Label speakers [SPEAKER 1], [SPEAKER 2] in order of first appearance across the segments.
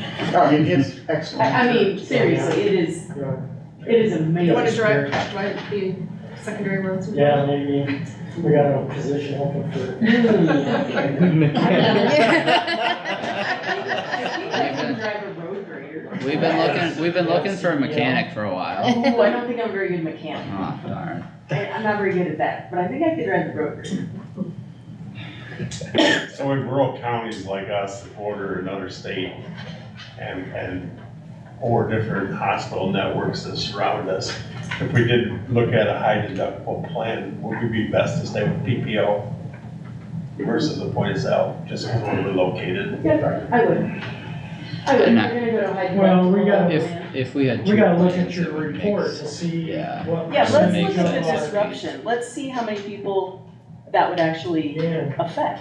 [SPEAKER 1] I mean, it's
[SPEAKER 2] I,
[SPEAKER 1] Oh, excellent.
[SPEAKER 2] I mean, seriously, it is,
[SPEAKER 3] Yeah,
[SPEAKER 2] it is
[SPEAKER 4] You wanna
[SPEAKER 2] amazing.
[SPEAKER 4] direct, drive the secondary roads?
[SPEAKER 3] Yeah, maybe, we got a position open for.
[SPEAKER 2] I think I can drive a road grader.
[SPEAKER 5] We've been looking, we've been looking for a mechanic for a while.
[SPEAKER 2] Ooh, I don't think I'm a very good mechanic.
[SPEAKER 5] Oh, darn.
[SPEAKER 2] I, I'm not very good at that, but I think I could drive a road grader.
[SPEAKER 6] So in rural counties like us, that border another state and, and four different hospital networks that surround us, if we did look at a high deductible plan, would we be best to stay with PPO versus a point of sale, just because we're located?
[SPEAKER 2] Yeah, I would. I would,
[SPEAKER 5] And
[SPEAKER 2] we're gonna go to high.
[SPEAKER 3] Well, we got-
[SPEAKER 2] deductible.
[SPEAKER 5] If, if we had.
[SPEAKER 3] We gotta
[SPEAKER 5] two
[SPEAKER 3] look at
[SPEAKER 5] plans,
[SPEAKER 3] your
[SPEAKER 5] it would make
[SPEAKER 3] report
[SPEAKER 5] s-
[SPEAKER 3] to see
[SPEAKER 5] yeah.
[SPEAKER 3] what.
[SPEAKER 2] Yeah, let's
[SPEAKER 5] Doesn't
[SPEAKER 2] look
[SPEAKER 3] percentage
[SPEAKER 5] make
[SPEAKER 2] at
[SPEAKER 3] of
[SPEAKER 2] the
[SPEAKER 5] sense.
[SPEAKER 3] our-
[SPEAKER 2] disruption, let's see how many people that would actually
[SPEAKER 3] Yeah,
[SPEAKER 2] affect.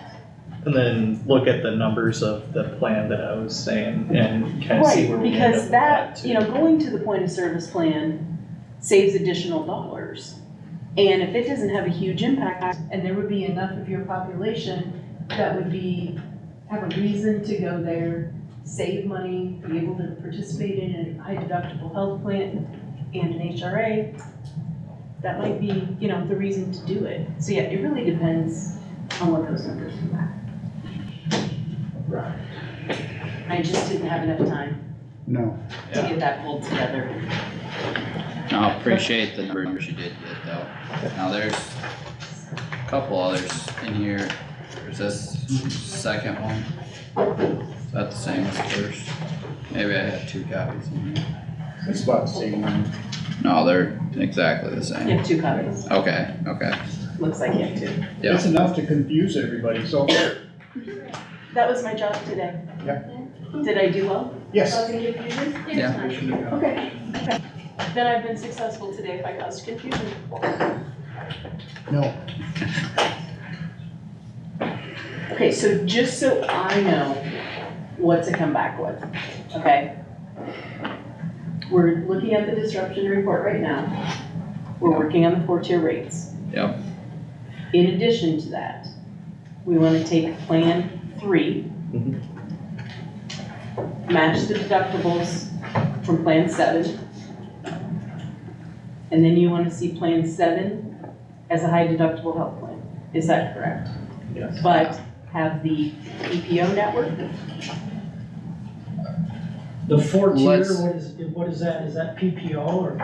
[SPEAKER 7] And then look at the numbers of the plan that I was saying and kind of see where
[SPEAKER 2] Right,
[SPEAKER 7] we end up
[SPEAKER 2] because
[SPEAKER 7] with that
[SPEAKER 2] that,
[SPEAKER 7] too.
[SPEAKER 2] you know, going to the point of service plan saves additional dollars. And if it doesn't have a huge impact,
[SPEAKER 8] and there would be enough of your population that would be, have a reason to go there, save money, be able to participate in a high deductible health plan and an HRA,
[SPEAKER 2] that might be, you know, the reason to do it. So yeah, it really depends on what those numbers come back. I just didn't have enough time
[SPEAKER 1] No,
[SPEAKER 2] to get that pulled together.
[SPEAKER 5] I appreciate the numbers you did get though. Now there's a couple others in here. There's this second one. Is that the same as the first? Maybe I had two copies in here.
[SPEAKER 1] it's about the same. amount.
[SPEAKER 5] No, they're exactly the
[SPEAKER 2] You
[SPEAKER 5] same.
[SPEAKER 2] have two copies,
[SPEAKER 5] Okay, okay.
[SPEAKER 2] looks like you have two.
[SPEAKER 5] Yeah.
[SPEAKER 1] It's enough to confuse everybody, so,
[SPEAKER 2] That was my job today.
[SPEAKER 1] Yeah.
[SPEAKER 2] Did I do well?
[SPEAKER 1] yes.
[SPEAKER 2] Causing confusion?
[SPEAKER 5] Yeah.
[SPEAKER 1] we should have done.
[SPEAKER 2] Okay, okay. Then I've been successful today if I caused confusion.
[SPEAKER 1] No,
[SPEAKER 2] Okay, so just so I know what to come back with, okay? We're looking at the disruption report right now. We're working on the four-tier rates.
[SPEAKER 5] Yep.
[SPEAKER 2] In addition to that, we wanna take Plan Three,
[SPEAKER 7] Mhm.
[SPEAKER 2] match the deductibles from Plan Seven. And then you wanna see Plan Seven as a high deductible health plan. Is that correct?
[SPEAKER 7] Yes.
[SPEAKER 2] But have the EPO network,
[SPEAKER 3] the four tier,
[SPEAKER 5] Let's-
[SPEAKER 3] what is, what is that, is that PPO or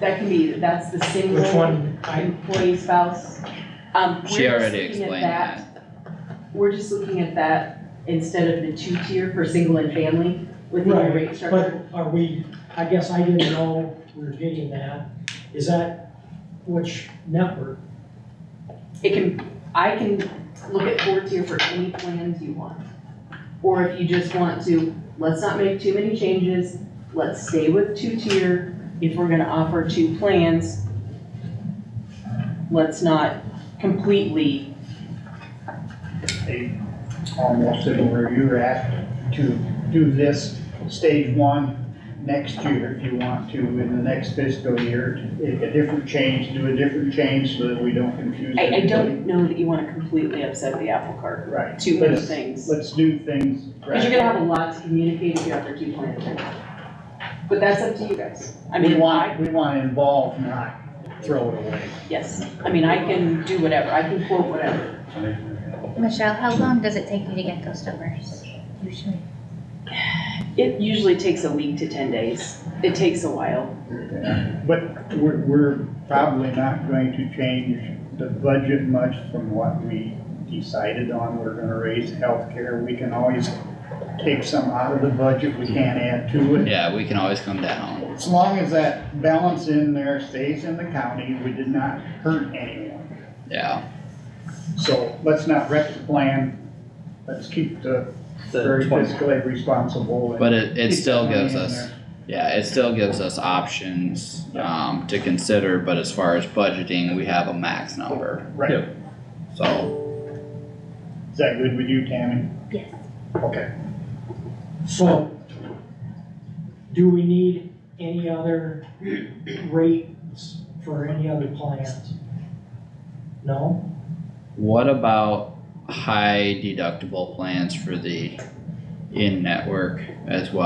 [SPEAKER 2] that can be, that's the single.
[SPEAKER 3] which one? I,
[SPEAKER 2] Employee spouse. Um,
[SPEAKER 5] She
[SPEAKER 2] we're just
[SPEAKER 5] already
[SPEAKER 2] looking at
[SPEAKER 5] explained that.
[SPEAKER 2] We're just looking at that instead of the two-tier for single and family within your
[SPEAKER 3] Right,
[SPEAKER 2] rate structure.
[SPEAKER 3] but are we, I guess I didn't know we were getting that, is that which network?
[SPEAKER 2] It can, I can look at four-tier for any plans you want. Or if you just want to, let's not make too many changes, let's stay with two-tier. If we're gonna offer two plans, let's not completely
[SPEAKER 1] almost to where you're at to do this stage one next year if you want to, in the next fiscal year, a a different change, do a different change so that we don't confuse
[SPEAKER 2] I, I
[SPEAKER 1] everybody.
[SPEAKER 2] don't know that you wanna completely upset the apple cart,
[SPEAKER 1] Right.
[SPEAKER 2] two new
[SPEAKER 1] Let's-
[SPEAKER 2] things.
[SPEAKER 1] Let's do things.
[SPEAKER 2] Cause you're gonna have a lot to communicate if you have to do plans. But that's up to you guys. I
[SPEAKER 1] We
[SPEAKER 2] mean,
[SPEAKER 1] want,
[SPEAKER 2] I,
[SPEAKER 1] we want to involve, not throw it away.
[SPEAKER 2] yes, I mean, I can do whatever, I can quote whatever.
[SPEAKER 9] Michelle, how long does it take you to get those numbers usually?
[SPEAKER 2] It usually takes a week to ten days. It takes a while.
[SPEAKER 1] But we're, we're probably not going to change the budget much from what we decided on. We're gonna raise healthcare. We can always take some out of the budget. We can't add to it.
[SPEAKER 5] Yeah, we can always come down.
[SPEAKER 1] As long as that balance in there stays in the county, we did not hurt anyone.
[SPEAKER 5] Yeah,
[SPEAKER 1] So let's not wreck the plan. Let's keep the
[SPEAKER 7] The
[SPEAKER 1] very
[SPEAKER 7] twenty,
[SPEAKER 1] fiscally responsible. and
[SPEAKER 5] but it, it
[SPEAKER 1] keep
[SPEAKER 5] still
[SPEAKER 1] the money
[SPEAKER 5] gives
[SPEAKER 1] in
[SPEAKER 5] us.
[SPEAKER 1] there.
[SPEAKER 5] Yeah, it still gives us options, um, to consider, but as far as budgeting, we have a max number,
[SPEAKER 1] Right.
[SPEAKER 7] Yep.
[SPEAKER 5] so.
[SPEAKER 1] Is that good with you, Tammy?
[SPEAKER 9] Yes.
[SPEAKER 1] Okay.
[SPEAKER 3] So, do we need any other rates for any other plans? No?
[SPEAKER 5] What about high deductible plans for the in-network as well?